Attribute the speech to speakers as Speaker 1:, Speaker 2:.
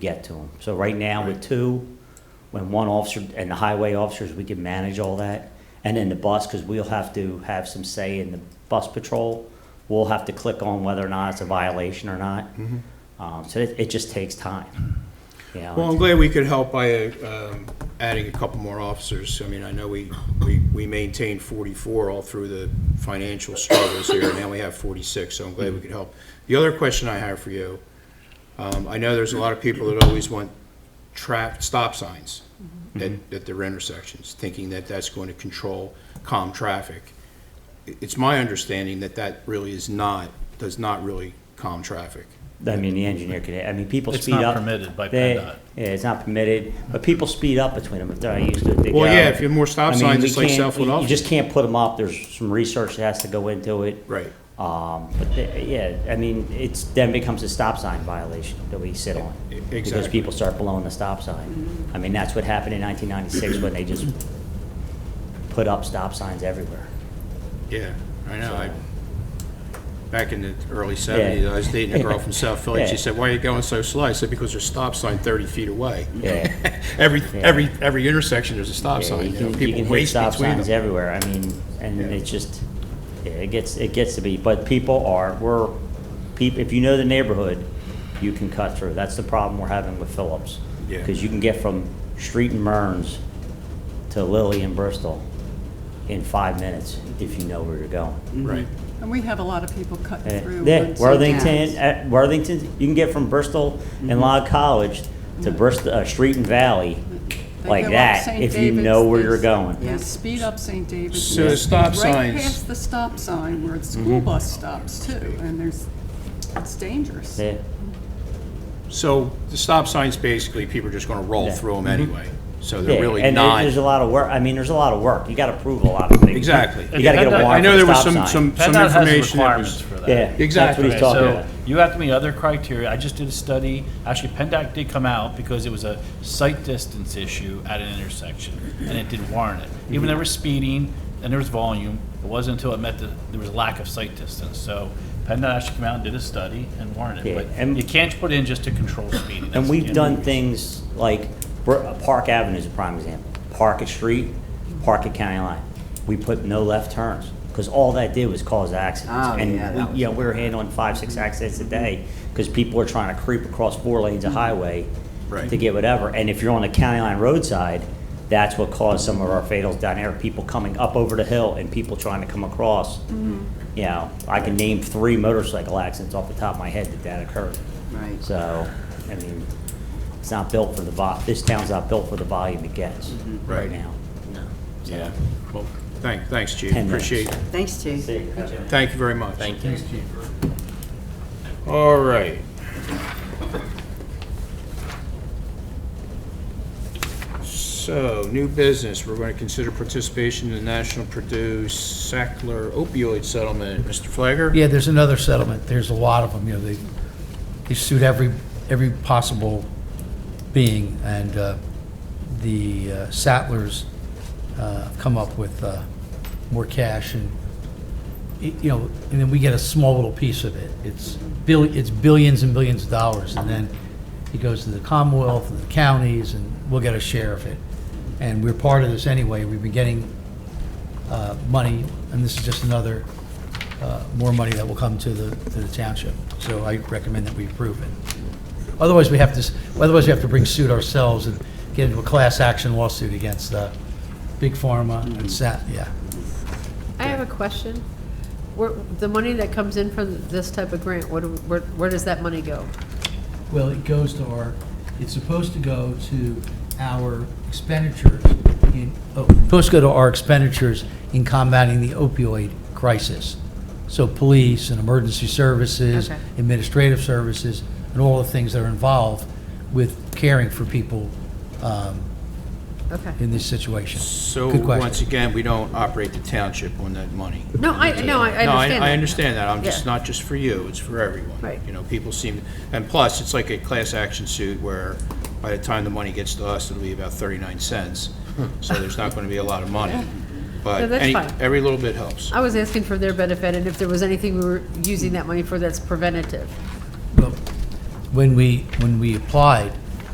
Speaker 1: get to them. So right now with two, when one officer and the highway officers, we can manage all that. And then the bus, because we'll have to have some say in the bus patrol. We'll have to click on whether or not it's a violation or not.
Speaker 2: Mm-hmm.
Speaker 1: Um, so it, it just takes time. You know,
Speaker 2: Well, I'm glad we could help by uh, um, adding a couple more officers. I mean, I know we, we we maintained 44 all through the financial struggles here, and now we have 46, so I'm glad we could help. The other question I have for you, um, I know there's a lot of people that always want trap, stop signs at, at their intersections, thinking that that's going to control calm traffic. I- It's my understanding that that really is not, does not really calm traffic.
Speaker 1: I mean, the engineer could, I mean, people
Speaker 3: It's
Speaker 1: speed
Speaker 3: not
Speaker 1: up.
Speaker 3: permitted by
Speaker 1: They-
Speaker 3: PennDOT.
Speaker 1: Yeah, it's not permitted, but people speed up between them if they're not used to it. They
Speaker 2: Well,
Speaker 1: go.
Speaker 2: yeah, if you have more stop
Speaker 1: I mean,
Speaker 2: signs,
Speaker 1: we
Speaker 2: it's like
Speaker 1: can't-
Speaker 2: Southwood
Speaker 1: you- You
Speaker 2: Office.
Speaker 1: just can't put them up. There's some research that has to go into it.
Speaker 2: Right.
Speaker 1: Um, but the- yeah, I mean, it's, then becomes a stop sign violation that we sit on.
Speaker 2: E-
Speaker 1: Because
Speaker 2: exactly.
Speaker 1: people start blowing the stop sign. I mean, that's what happened in nineteen ninety-six when they just put up stop signs everywhere.
Speaker 2: Yeah, I know. I, back in the early seventies, I was dating a girl from South Philly. She
Speaker 1: Yeah.
Speaker 2: said, why are you going so slow? I said, because there's a stop sign thirty feet away.
Speaker 1: Yeah.
Speaker 2: Every,
Speaker 1: Yeah.
Speaker 2: every, every intersection, there's a stop
Speaker 1: Yeah,
Speaker 2: sign.
Speaker 1: you
Speaker 2: You know,
Speaker 1: can, you
Speaker 2: people
Speaker 1: can hit
Speaker 2: waste
Speaker 1: stop
Speaker 2: between
Speaker 1: signs
Speaker 2: them.
Speaker 1: everywhere, I mean, and
Speaker 2: Yeah.
Speaker 1: it's just, yeah, it gets, it gets to be, but people are, we're, peop if you know the neighborhood, you can cut through, that's the problem we're having with Phillips.
Speaker 2: Yeah.
Speaker 1: Because you can get from Street and Murns to Lilly and Bristol in five minutes if you know where you're going.
Speaker 2: Right.
Speaker 4: And we have a lot of people cut
Speaker 1: Eh,
Speaker 4: Mm-hmm. through.
Speaker 1: Yeah,
Speaker 4: on
Speaker 1: Worthington, eh,
Speaker 4: Sundays.
Speaker 1: at Worthington, you can get from Bristol
Speaker 4: Mm-hmm.
Speaker 1: and Log College to Bristol, uh, Street and Valley
Speaker 4: They
Speaker 1: like
Speaker 4: go up
Speaker 1: that,
Speaker 4: St.
Speaker 1: if you
Speaker 4: David's,
Speaker 1: know where
Speaker 4: they
Speaker 1: you're
Speaker 4: s-
Speaker 1: going.
Speaker 4: They speed up St. David's.
Speaker 2: So
Speaker 4: They
Speaker 2: the stop
Speaker 4: speed Right
Speaker 2: signs- Mm-hmm.
Speaker 4: past the stop sign where the school bus stops too, and there's, it's dangerous.
Speaker 1: Yeah.
Speaker 2: So the stop signs, basically, people are just gonna roll
Speaker 1: Yeah. Mm-hmm.
Speaker 2: through them anyway. So
Speaker 1: Yeah,
Speaker 2: they're really
Speaker 1: and there-
Speaker 2: not.
Speaker 1: There's a lot of work, I mean, there's a lot of work, you gotta prove a lot of things.
Speaker 2: Exactly.
Speaker 1: You gotta get a
Speaker 3: I- I
Speaker 1: warrant
Speaker 2: know
Speaker 1: for
Speaker 2: there
Speaker 1: a
Speaker 2: was
Speaker 1: stop sign.
Speaker 2: some- some-
Speaker 3: PennDOT has
Speaker 2: information that was-
Speaker 3: requirements for that.
Speaker 1: Yeah, that's what
Speaker 2: Exactly.
Speaker 1: he's
Speaker 3: Okay,
Speaker 1: talking
Speaker 3: so
Speaker 1: about.
Speaker 3: You have to meet other criteria. I just did a study, actually PennDOT did come out because it was a sight distance issue at an intersection, and it did warrant it.
Speaker 1: Mm-hmm.
Speaker 3: Even there was speeding and there was volume, it wasn't until it met the, there was a lack of sight distance, so PennDOT actually came out and did a study and warranted
Speaker 1: Yeah,
Speaker 3: it. But
Speaker 1: and-
Speaker 3: you can't put in just to control speeding.
Speaker 1: And
Speaker 3: That's-
Speaker 1: we've
Speaker 3: yeah.
Speaker 1: done things like, Br- Park Avenue is a prime example, Park at Street, Park at County Line. We put no left turns, because all that did was cause accidents.
Speaker 5: Oh, yeah, that
Speaker 1: And, we-
Speaker 5: was- Mm-hmm.
Speaker 1: you know, we were handling five, six accidents a day, because people are trying to creep across four lanes
Speaker 5: Mm-hmm.
Speaker 1: of highway
Speaker 2: Right.
Speaker 1: to get whatever. And if you're on the county line roadside, that's what caused some of our fatals down there, people coming up over the hill and people trying to come across.
Speaker 5: Mm-hmm.
Speaker 1: You know, I can name three motorcycle accidents off the top of my head that that occurred.
Speaker 5: Right.
Speaker 1: So, I mean, it's not built for the vol, this town's not built for the volume it gets right
Speaker 2: Right.
Speaker 1: now.
Speaker 2: Yeah. Well, thank, thanks, Chief.
Speaker 1: Ten minutes.
Speaker 2: Appreciate it.
Speaker 5: Thanks, Chief.
Speaker 2: Thank you very much. Thank you. All right. So, new business, we're going to consider participation in the National Purdue Sackler opioid settlement. Mr. Flagger?
Speaker 6: Yeah, there's another settlement. There's a lot of them, you know, they, they sued every, every possible being, and uh, the uh, Sattlers uh, come up with uh, more cash, and, y- you know, and then we get a small little piece of it. It's bill, it's billions and billions of dollars, and then it goes to the Commonwealth and the counties, and we'll get a share of it. And we're part of this anyway. We've been getting uh, money, and this is just another, uh, more money that will come to the, to the township. So I recommend that we approve it. Otherwise, we have to, s- otherwise we have to bring suit ourselves and get into a class action lawsuit against uh, Big Pharma and Sat, yeah.
Speaker 7: I have a question. Where, the money that comes in from this type of grant, what, do- where, where does that money go?
Speaker 6: Well, it goes to our, it's supposed to go to our expenditures in, oh, supposed to go to our expenditures in combating the opioid crisis. So police and emergency services,
Speaker 7: Okay.
Speaker 6: administrative services, and all the things that are involved with caring for people um,
Speaker 7: Okay.
Speaker 6: in this situation.
Speaker 2: So,
Speaker 6: Good question.
Speaker 2: once again, we don't operate the township on that money.
Speaker 7: No, I, no, I I understand
Speaker 2: No, I,
Speaker 7: that.
Speaker 2: I understand that, I'm just,
Speaker 7: Yeah.
Speaker 2: not just for you, it's for everyone.
Speaker 7: Right.
Speaker 2: You know, people seem, and plus, it's like a class action suit where by the time the money gets to us, it'll be about thirty-nine cents. So there's not gonna be a lot of money,
Speaker 7: Hmm. No,
Speaker 2: but
Speaker 7: that's
Speaker 2: any,
Speaker 7: fine.
Speaker 2: every little bit helps.
Speaker 7: I was asking for their benefit and if there was anything we were using that money for that's preventative.
Speaker 6: Well, When we, when we applied,